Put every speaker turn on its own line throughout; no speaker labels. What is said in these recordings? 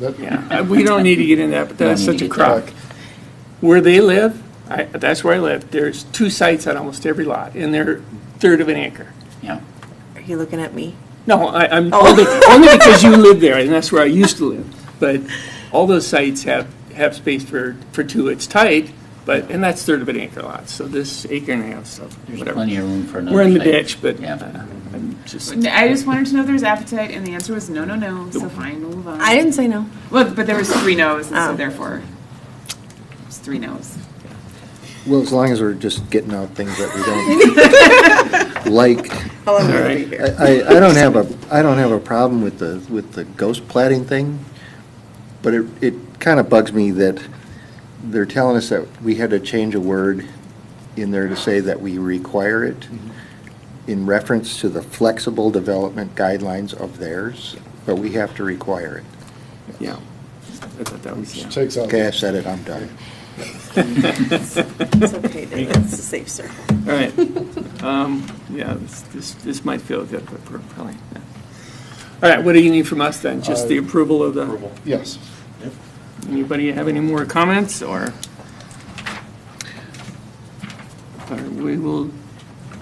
That-
Yeah, Uh, we don't need to get into that, but that's
Don't need
such a
to.
crock. Where they live, I, that's where I live, there's two sites on almost every lot, and they're third of an acre.
Yeah.
Are you looking at me?
No, I, I'm,
Oh.
only, only because you live there, and that's where I used to live. But all those sites have, have space for, for two, it's tight, but, and that's third of an acre lot, so this acre and a half stuff,
There's
whatever.
plenty of room for another.
We're in the
site.
ditch, but uh,
Yeah.
I'm just,
I just wanted to know if there was appetite, and the answer was no, no, no. So fine, we'll move on.
I didn't say no.
Well, but there was three no's, and so
Oh.
therefore, it was three no's.
Well, as long as we're just getting out things that we don't like.
How long
all
will it
right.
be here?
I, I I don't have a, I don't have a problem with the, with the ghost plating thing, but it, it kind of bugs me that they're telling us that we had to change a word in there to say that we require it in reference to the flexible development guidelines of theirs, but we have to require it.
yeah. I thought that was, yeah.
Takes out,
Okay, I said it, I'm done.
It's okay, David. It's a safe circle.
All right. Um, Yeah, this, this this might feel good, but we're probably not. All right, what do you need from us then? Just the approval of the,
yes.
anybody have any more comments or? All right, We will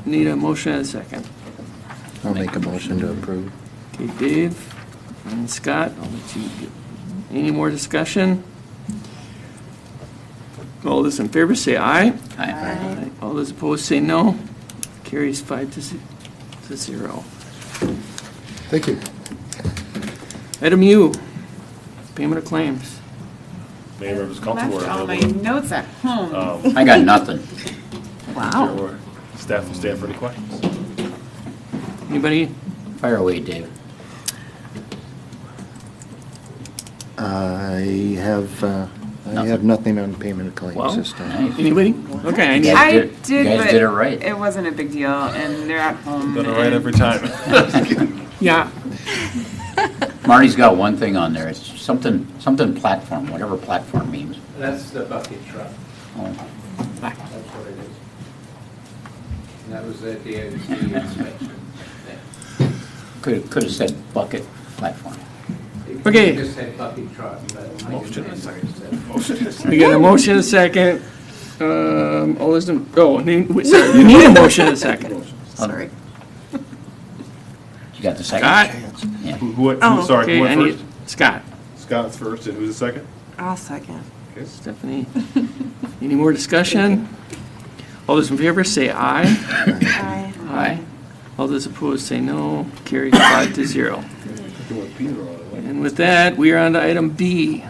need a motion and a second.
I'll make a motion to approve.
Okay, Dave and Scott, I'll let you, get- any more discussion? All those in favor say aye.
Aye.
Aye. All those opposed say no. Carries five to ze- to zero.
Thank you.
Item U, payment of claims.
Mayor, it was comfortable.
Left all my
available.
notes at home.
Um,
I got nothing.
there
Wow.
were Staff, staff, any questions?
Anybody?
Fire away, Dave.
I have, uh, I have nothing on payment of claims
Well,
this time.
Nice.
Anybody? Okay, I need,
Yeah.
all
I
did- you
did,
guys
but
did it right.
It wasn't a big deal, and they're at home.
Done it right
and-
every time.
yeah,
Marty's got one thing on there. It's something, something platform, whatever platform means.
That's the bucket truck,
Oh,
that's what it is. And that was at the OT inspection.
Could, could have said bucket platform. Oh,
It-
Okay.
It just said bucket truck, but I
Motion
didn't
is
know where
second.
it said.
we got a motion and a second. Um, all those, in- oh, need- wait, sorry, you need a motion and a second.
Sorry.
You got the second?
Scott?
Yeah.
Who, who-
Oh,
who, sorry,
Okay,
who
I
went
need,
first?
Scott,
Scott's first, and who's the second?
I'll second.
Okay.
Stephanie. Any more discussion? All those in favor say aye.
Aye.
Aye. All those opposed say no. Carries five to zero. And with that, we are on to item B.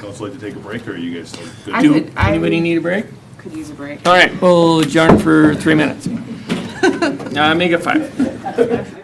Council like to take a break, or are you guys still good?
I
Do,
could- I-
anybody need a break?
Could use a break.
All right, we'll adjourn for three minutes. Uh, make it five.